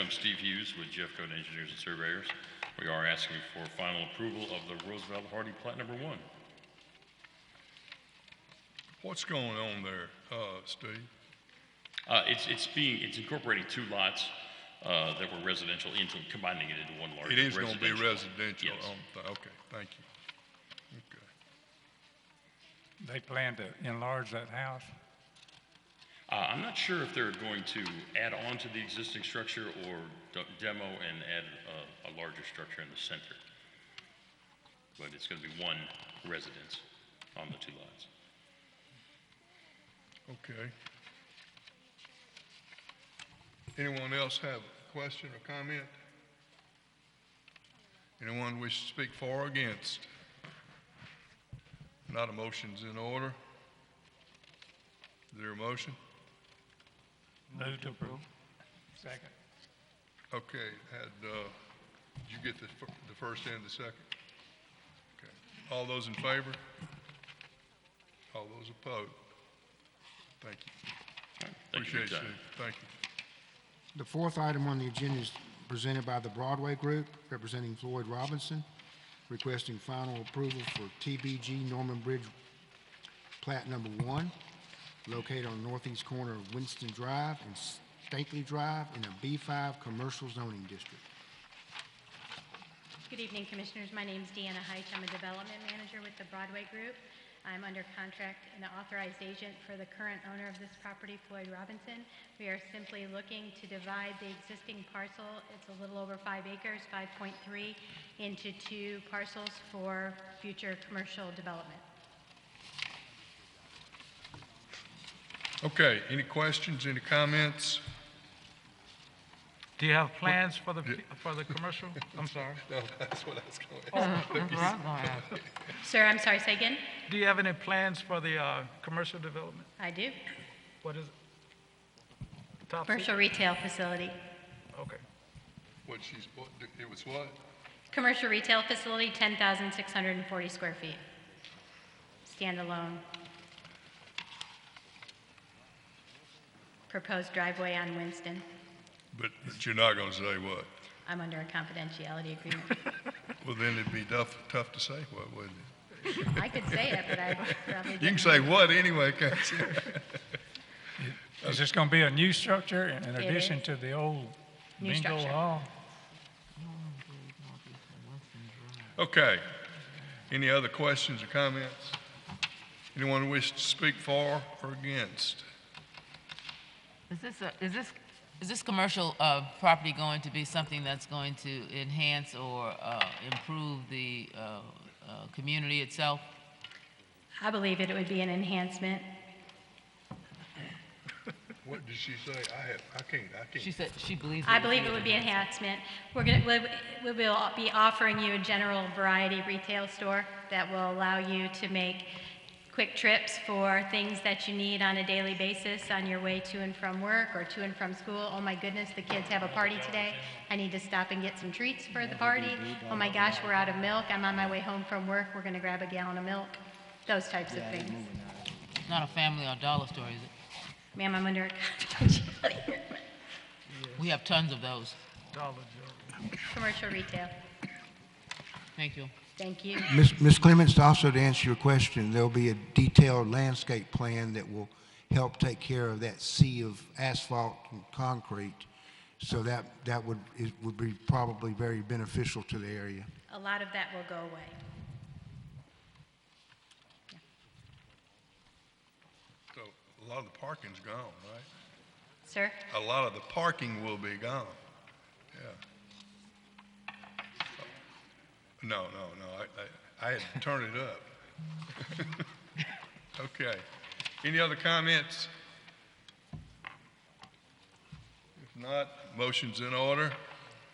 I'm Steve Hughes with Jeffco Engineers and Surveyors. We are asking for final approval of the Roosevelt Hardy Plat Number One. What's going on there, uh, Steve? Uh, It's, it's being, it's incorporating two lots uh, that were residential into, combining it into one large It is residential. gonna be residential Yes. on, th- okay, thank you. Okay. They plan to enlarge that house? oh. Uh, I'm not sure if they're going to add on to the existing structure or d- demo and add uh, a larger structure in the center. But it's going to be one residence on the two lots. Okay. Anyone else have a question or comment? Anyone wish to speak for or against? Not a motion's in order. Is there a motion? Move to approve. Second. Okay, had, uh, did you get the, fir- the first and the second? Okay. All those in favor? All those opposed? Thank you. All right, Thank you for your Appreciate you. time. Thank you. The fourth item on the agenda is presented by the Broadway Group, representing Floyd Robinson, requesting final approval for TBG Norman Bridge Plat Number One, located on northeast corner of Winston Drive and Stately Drive in a B5 Commercial Zoning District. Good evening, Commissioners. My name's Deanna Heitch. I'm a Development Manager with the Broadway Group. I'm under contract and authorized agent for the current owner of this property, Floyd Robinson. We are simply looking to divide the existing parcel, it's a little over five acres, 5.3, into two parcels for future commercial development. Okay, any questions, any comments? Do you have plans for the, for the commercial? I'm sorry. No, that's what I was going to ask. Sir, I'm sorry, say again? Do you have any plans for the, uh, commercial development? I do. What is it? Top secret? Commercial retail facility. Okay. What she's, what, it was what? Commercial retail facility, 10,640 square feet. Standalone. Proposed driveway on Winston. But, but you're not going to say what? I'm under a confidentiality agreement. Well, then it'd be tough, tough to say what, wouldn't it? I could say it, but I probably You can don't. say what anyway, can't you? Is this going to be a new structure in It addition is. to the old New bingo structure. hall? Okay. Any other questions or comments? Anyone wish to speak for or against? Is this, a- is this, is this commercial uh, property going to be something that's going to enhance or uh, improve the uh, uh, community itself? I believe it would be an enhancement. What did she say? I have, I can't, I can't. She said she believes. I believe it would be an enhancement. We're going to, we will be offering you a general variety retail store that will allow you to make quick trips for things that you need on a daily basis on your way to and from work or to and from school. Oh my goodness, the kids have a party today. I need to stop and get some treats for the party. Oh my gosh, we're out of milk. I'm on my way home from work. We're going to grab a gallon of milk. Those types of things. It's not a family or dollar store, is it? Ma'am, I'm under a confidentiality agreement. We have tons of those. Dollar General. Commercial retail. Thank you. Thank you. Ms. Ms. Clements, to also to answer your question, there'll be a detailed landscape plan that will help take care of that sea of asphalt and concrete. So that, that would, it would be probably very beneficial to the area. A lot of that will go away. So, a lot of the parking's gone, right? Sir? A lot of the parking will be gone. Yeah. No, no, no, I, I, I had to turn it up. Okay. Any other comments? If not, motion's in order.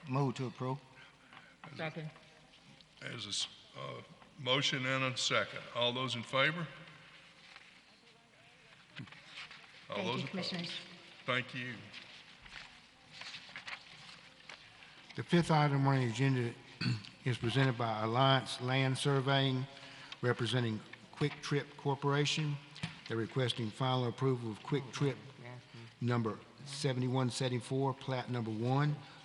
Move to approve. Second. There's a s- uh, motion and a second. All those in favor? All those Thank you, opposed? Commissioners. Thank you. The fifth item on the agenda is presented by Alliance Land Surveying, representing Quick Trip Corporation. They're requesting final approval of Quick Trip number 7174, plat number one,